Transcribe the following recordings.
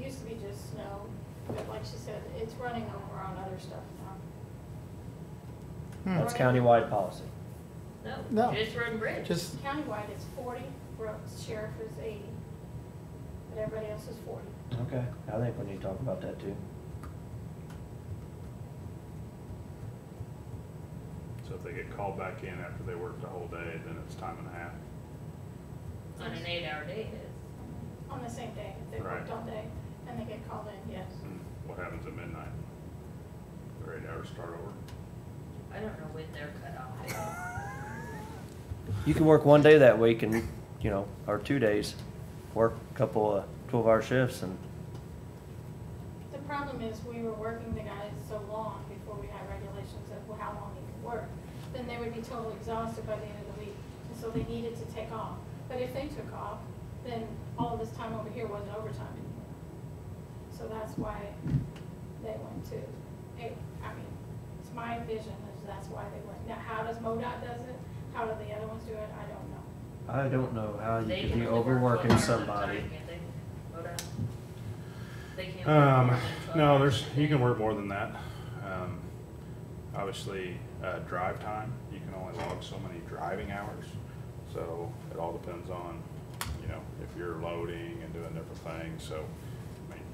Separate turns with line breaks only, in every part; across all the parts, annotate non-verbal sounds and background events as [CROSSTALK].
used to be just snow, but like she said, it's running over on other stuff now.
That's countywide policy.
No.
No, just Roden Bridge.
Just,
Countywide, it's forty, Brooks Sheriff is eighty, but everybody else is forty.
Okay. I think we need to talk about that too.
So if they get called back in after they worked the whole day, then it's time and a half.
On an eight-hour day, it's
On the same day, if they worked
Right.
all day and they get called in, yes.
And what happens at midnight? Or eight hours start over?
I don't know when they're cut off.
You can work one day that week and, you know, or two days, work a couple of twelve-hour shifts and,
The problem is, we were working the guys so long before we had regulations of how long you could work. Then they would be totally exhausted by the end of the week, and so they needed to take off. But if they took off, then all of this time over here wasn't overtime anymore. So that's why they went to, eight. I mean, it's my vision, is that's why they went. Now, how does MoDOT does it? How do the other ones do it? I don't know.
I don't know how Uh, you
They
could
can
be
only work one
overworking
hour at a
somebody.
time, can't they? Hold on. They can't. work
Um,
more than 12
no,
hours
there's,
a
you
day.
can work more than that. Um, obviously, uh, drive time, you can only log so many driving hours. So it all depends on, you know, if you're loading and doing different things, so, I mean,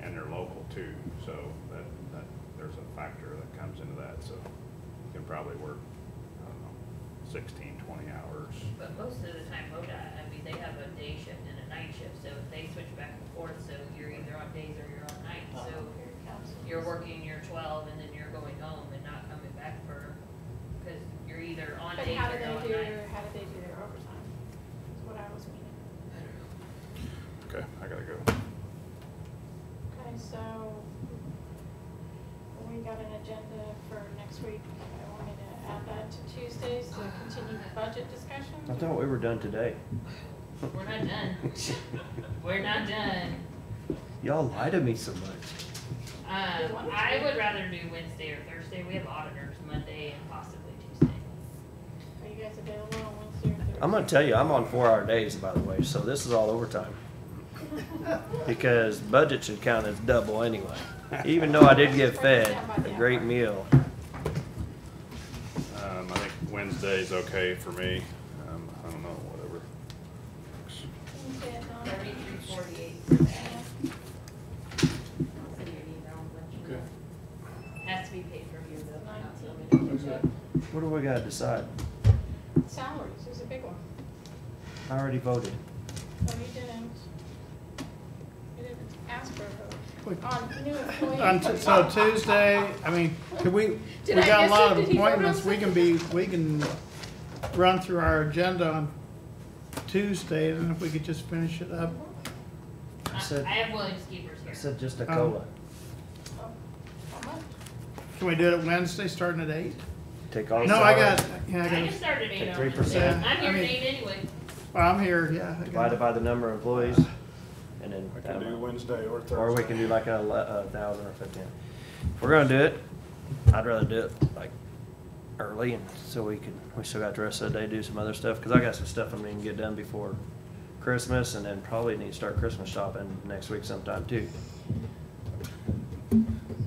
and they're local too, so that, that, there's a factor that comes into that, so you can probably work, I don't know, sixteen, twenty hours.
But most of the time, ODOT, I mean, they have a day shift and a night shift, so they switch back and forth, so you're either on days or you're on nights, so
Oh,
Here it comes.
you're working your twelve and then you're going home and not coming back for, cause you're either on
But
days
how do
or
they
on
do,
nights.
how do they do their overtime? Is what I was meaning.
Okay, I gotta go.
Okay, so we got an agenda for next week. I wanted to add that to Tuesdays to continue the budget discussion.
I thought we were done today.
We're not done. We're not done.
[LAUGHS] Y'all lie to me so much.
Um, I would rather do Wednesday or Thursday. We have auditors Monday and possibly Tuesday.
Are you guys available on Wednesday or Thursday?
I'm gonna tell you, I'm on four-hour days, by the way, so this is all
[LAUGHS]
overtime. Because budget should count as double anyway, even though I did get fed a great meal.
Um, I think Wednesday's okay for me. Um, I don't know, whatever.
Wednesday at nine.
Thirty-three forty-eight for that. I'll send you an email and let you know. Has to be paid for here though. not so many.
What do we gotta decide?
Salaries is a big one.
I already voted.
No, you didn't. You didn't ask for a vote.
Wait.
On new employees.
on Tu- so Tuesday, I mean, could we, we
Did I
got a
miss
lot
it?
of
Did he vote on
appointments, we can be, we can run through our agenda on Tuesday, and if we could just finish it up.
I
said-
I have Williams Keepers
I
here.
said just a
Um,
Oh,
cola.
how much?
Can we do it Wednesday, starting at eight?
Take all.
No, I
salaries,
got, yeah, I
I
got,
just started eight
Take
on
3%.
Wednesday. I'm
I
here
mean-
eight anyway.
well, I'm here, yeah. I got-
Divided by the number of employees, and then.
I
that
can do
amount.
Wednesday or Thursday.
Or we can do like a, le- a thousand or fifteen. If we're gonna do it, I'd rather do it like early and so we can, we still got the rest of the day to do some other stuff, cause I got some stuff I'm gonna get done before Christmas and then probably need to start Christmas shopping next week sometime too.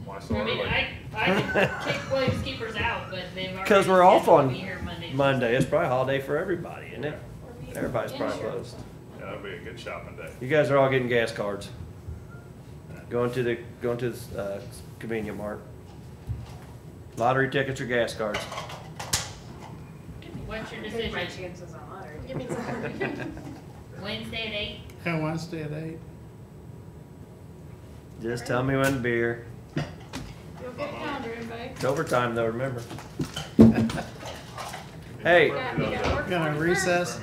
Why so
I mean,
early?
I,
[LAUGHS]
I can kick Williams Keepers out, but they've already.
Cause we're off
scheduled to
on
Be here Monday.
Monday, it's probably a holiday for everybody, isn't it?
Or be-
Everybody's probably
insurance.
closed.
Yeah, that'd be a good shopping day.
You guys are all getting gas cards. Going to the, going to the, uh, convenience mart. Lottery tickets or gas cards.
What's your decision?
Give me some.
Wednesday at eight?
Yeah, Wednesday at eight.
Just tell me when beer.
You'll get a calendar invite.
It's overtime though, remember. Hey.
Yeah, we gotta work
Gonna
41st.
recess.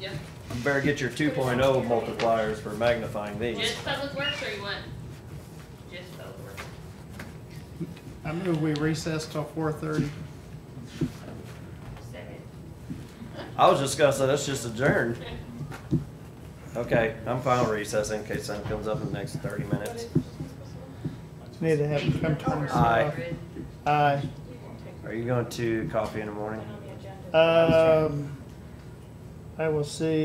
Yep.
You better get your 2.0 multipliers for magnifying these.
Just public works or you want? Just public works.
I move we recess till four thirty.
Second.
I was just gonna say, let's just adjourn. Okay, I'm fine with recess in case something comes up in the next 30
But it's-
minutes.
Need to have, come to terms.
Aye.
Aye.
You can take
Are you going to coffee in the morning?
it on the agenda.
Um, I will see